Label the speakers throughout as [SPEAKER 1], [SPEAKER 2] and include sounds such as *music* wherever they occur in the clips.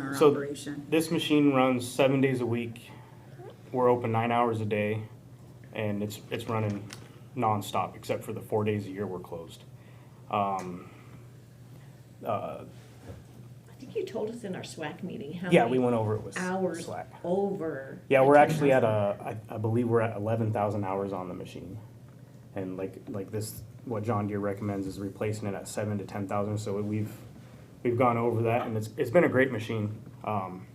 [SPEAKER 1] our
[SPEAKER 2] So-
[SPEAKER 1] operation.
[SPEAKER 2] This machine runs seven days a week. We're open nine hours a day, and it's it's running nonstop except for the four days a year we're closed. Um, uh,
[SPEAKER 3] I think you told us in our SWAC meeting how
[SPEAKER 2] yeah, we
[SPEAKER 3] many
[SPEAKER 2] went over it with
[SPEAKER 3] hours
[SPEAKER 2] Slack.
[SPEAKER 3] over.
[SPEAKER 2] Yeah,
[SPEAKER 3] the
[SPEAKER 2] we're actually at
[SPEAKER 3] 10,000.
[SPEAKER 2] a I, I believe we're at eleven thousand hours on the machine, and like like this, what John Deere recommends is replacing it at seven to ten thousand. So we've we've gone over that, and it's it's been a great machine. Um,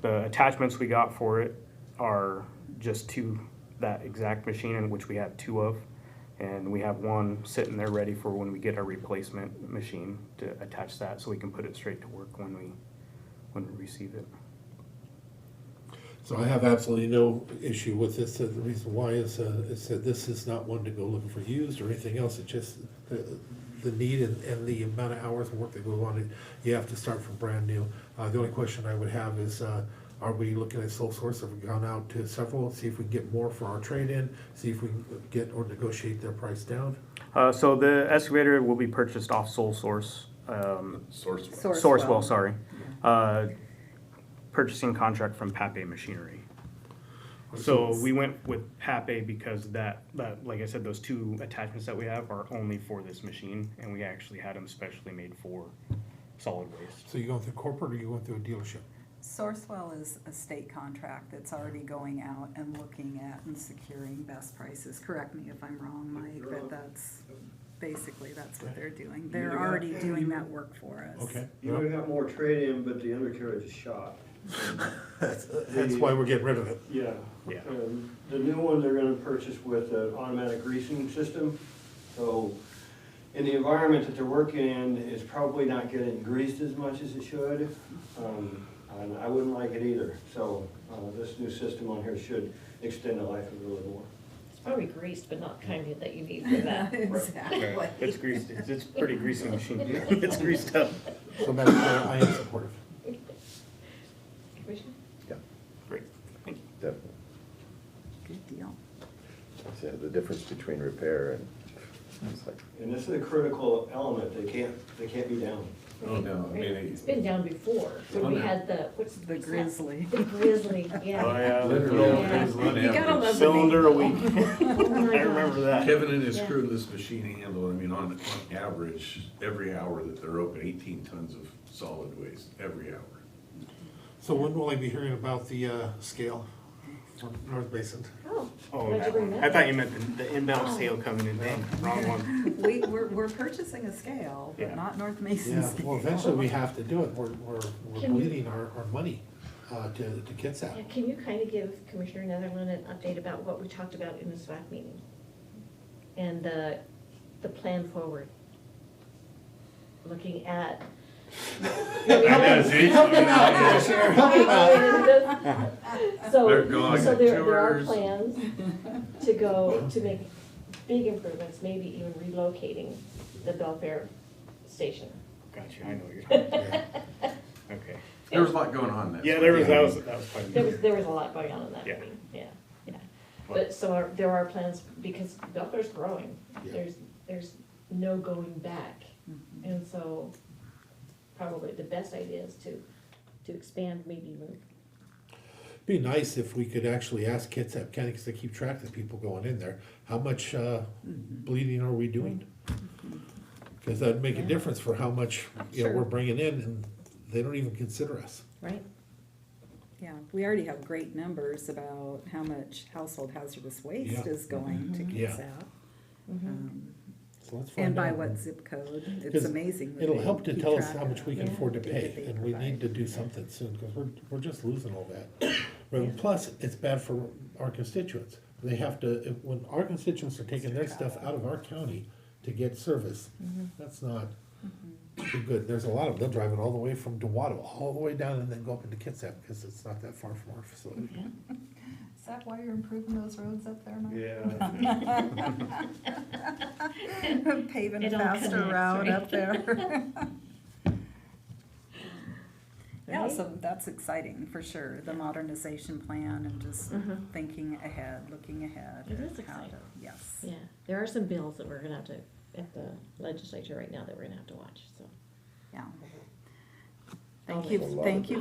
[SPEAKER 2] the attachments we got for it are just to that exact machine, in which we have two of, and we have one sitting there ready for when we get our replacement machine to attach that, so we can put it straight to work when we when we receive it.
[SPEAKER 4] So I have absolutely no issue with this, and the reason why is, uh, is that this is not one to go looking for used or anything else, it's just the, the need and, and the amount of hours of work that go on, it. you have to start from brand new. Uh, the only question I would have is, uh, are we looking at sole source, have we gone out to several, see if we can get more for our trade-in, see if we can get or negotiate their price down?
[SPEAKER 2] Uh, so the excavator will be purchased off sole source, um,
[SPEAKER 5] Source.
[SPEAKER 2] Sourcewell, sorry. Uh, purchasing contract from Pape Machinery. So we went with Pape because that, that, like I said, those two attachments that we have are only for this machine, and we actually had them specially made for solid waste.
[SPEAKER 4] *laughs* So you going through corporate or you going through a dealership?
[SPEAKER 6] Sourcewell is a state contract that's already going out and looking at and securing best prices. Correct me if I'm wrong, Mike, but that's, basically, that's what they're doing. They're already doing that work for us.
[SPEAKER 4] Okay,
[SPEAKER 7] You would have more trade-in, but the undercarriage is shot.
[SPEAKER 4] that's, that's why we're getting rid of it.
[SPEAKER 7] Yeah.
[SPEAKER 2] Yeah.
[SPEAKER 7] Um, The new one they're gonna purchase with an automatic greasing system, so in the environment that they're working in, it's probably not getting greased as much as it should. Um, And I wouldn't like it either, so uh, this new system on here should extend the life of it a little more.
[SPEAKER 3] It's probably greased, but not kind of that you need
[SPEAKER 6] *laughs*
[SPEAKER 3] for
[SPEAKER 6] *laughs*
[SPEAKER 3] that.
[SPEAKER 6] Exactly.
[SPEAKER 2] It's greased, it's, it's pretty greasy machine. *laughs* It's greased up.
[SPEAKER 4] So Madam Chair, I am supportive.
[SPEAKER 3] Commissioner?
[SPEAKER 2] Great, thank you.
[SPEAKER 5] Definitely.
[SPEAKER 6] Good deal.
[SPEAKER 5] Yeah, the difference between repair and, it's like,
[SPEAKER 7] And this is a critical element, they can't, they can't be down.
[SPEAKER 5] Oh, no, I mean,
[SPEAKER 3] Right.
[SPEAKER 5] it-
[SPEAKER 3] It's been down before,
[SPEAKER 2] Oh,
[SPEAKER 3] when we had the, what's?
[SPEAKER 6] The
[SPEAKER 3] what's that?
[SPEAKER 6] grizzly.
[SPEAKER 3] The grizzly,
[SPEAKER 2] Oh,
[SPEAKER 3] yeah.
[SPEAKER 5] literally,
[SPEAKER 3] Yeah.
[SPEAKER 5] it's on
[SPEAKER 6] You gotta
[SPEAKER 5] average.
[SPEAKER 6] love-
[SPEAKER 2] Cylinder a week.
[SPEAKER 3] *laughs*
[SPEAKER 2] *laughs*
[SPEAKER 3] Oh my
[SPEAKER 2] I
[SPEAKER 3] God.
[SPEAKER 2] remember that.
[SPEAKER 5] Kevin and his
[SPEAKER 3] Yeah.
[SPEAKER 5] crew in this machine handle, I mean, on, on average, every hour that they're open, eighteen tons of solid waste, every hour.
[SPEAKER 4] So when will I be hearing about the uh, scale from North Basin?
[SPEAKER 3] Oh,
[SPEAKER 2] Oh,
[SPEAKER 3] Why'd you
[SPEAKER 2] that
[SPEAKER 3] bring
[SPEAKER 2] one.
[SPEAKER 3] that
[SPEAKER 2] I
[SPEAKER 3] up?
[SPEAKER 2] thought you meant the, the inbound sale coming in, Dang, wrong one.
[SPEAKER 6] *laughs* We, we're, we're purchasing a scale,
[SPEAKER 2] Yeah.
[SPEAKER 6] but not North
[SPEAKER 4] Yeah,
[SPEAKER 6] Mason
[SPEAKER 4] well,
[SPEAKER 6] scale. *laughs*
[SPEAKER 4] eventually we have to do it, we're, we're, we're
[SPEAKER 3] Can we-
[SPEAKER 4] bleeding our, our money uh, to, to kids out.
[SPEAKER 3] Yeah, Can you kind of give Commissioner Netherland an update about what we talked about in the SWAC meeting? And the, the plan forward?
[SPEAKER 2] *laughs*
[SPEAKER 3] Looking at. *laughs*
[SPEAKER 5] They're
[SPEAKER 3] So,
[SPEAKER 5] going
[SPEAKER 3] so
[SPEAKER 5] on
[SPEAKER 3] there, there are
[SPEAKER 5] tours.
[SPEAKER 3] plans to go, to make big improvements, maybe even relocating the Belfair station. *laughs*
[SPEAKER 2] Gotcha, I know what you're talking about. Okay.
[SPEAKER 5] There was a lot going on there.
[SPEAKER 2] Yeah, there was, that was, that was quite a
[SPEAKER 3] There was,
[SPEAKER 2] bit.
[SPEAKER 3] there was a lot going on in that
[SPEAKER 2] Yeah.
[SPEAKER 3] meeting, yeah, yeah. But so are, there are plans, because Belfair's growing, there's, there's no going back. And so probably the best idea is to, to expand, maybe even
[SPEAKER 4] Be nice if we could actually ask Kitsap County, because they keep track of the people going in there, how much uh,
[SPEAKER 6] Mm-hmm.
[SPEAKER 4] bleeding are we doing? Because that'd make a difference for how much, you know,
[SPEAKER 6] Sure.
[SPEAKER 4] we're bringing in, and they don't even consider us.
[SPEAKER 3] right?
[SPEAKER 6] Yeah, we already have great numbers about how much household hazardous waste
[SPEAKER 4] Yeah.
[SPEAKER 6] is going to
[SPEAKER 4] Yeah.
[SPEAKER 6] kids out. Um,
[SPEAKER 4] So let's
[SPEAKER 6] And
[SPEAKER 4] find
[SPEAKER 6] by
[SPEAKER 4] out.
[SPEAKER 6] what zip code, it's
[SPEAKER 4] 'Cause
[SPEAKER 6] amazing. that
[SPEAKER 4] It'll
[SPEAKER 6] they
[SPEAKER 4] help to
[SPEAKER 6] keep
[SPEAKER 4] tell us
[SPEAKER 6] track
[SPEAKER 4] how much
[SPEAKER 6] of
[SPEAKER 4] we can
[SPEAKER 6] the
[SPEAKER 4] afford to
[SPEAKER 6] food that they
[SPEAKER 4] pay, and we
[SPEAKER 6] provide.
[SPEAKER 4] need to do something soon, because we're, we're just losing all
[SPEAKER 6] *coughs*
[SPEAKER 4] that. Right, Plus, it's bad for our constituents. They have to, if- when our constituents are taking their stuff out of our county to get service,
[SPEAKER 6] Mm-hmm.
[SPEAKER 4] that's not too good. There's a lot of, them driving all the way from Dewato, all the way down, and then go up into Kitsap, because it's not that far from our facility.
[SPEAKER 6] Is that why you're improving those roads up there, *laughs* Mike?
[SPEAKER 7] Yeah.
[SPEAKER 6] Paving
[SPEAKER 3] It
[SPEAKER 6] a
[SPEAKER 3] all
[SPEAKER 6] faster
[SPEAKER 3] connects,
[SPEAKER 6] route
[SPEAKER 3] right?
[SPEAKER 6] up there. *laughs* Yeah,
[SPEAKER 3] Right?
[SPEAKER 6] so that's exciting for sure, the modernization plan and just
[SPEAKER 3] Mhm.
[SPEAKER 6] thinking ahead, looking ahead.
[SPEAKER 3] It
[SPEAKER 6] at
[SPEAKER 3] is
[SPEAKER 6] how to-
[SPEAKER 3] exciting.
[SPEAKER 6] Yes.
[SPEAKER 3] Yeah, there are some bills that we're gonna have to, at the legislature right now, that we're gonna have to watch, so.
[SPEAKER 6] Yeah.
[SPEAKER 3] Thank
[SPEAKER 6] Thank
[SPEAKER 3] you.
[SPEAKER 5] A lot
[SPEAKER 6] you,
[SPEAKER 5] of
[SPEAKER 6] thank you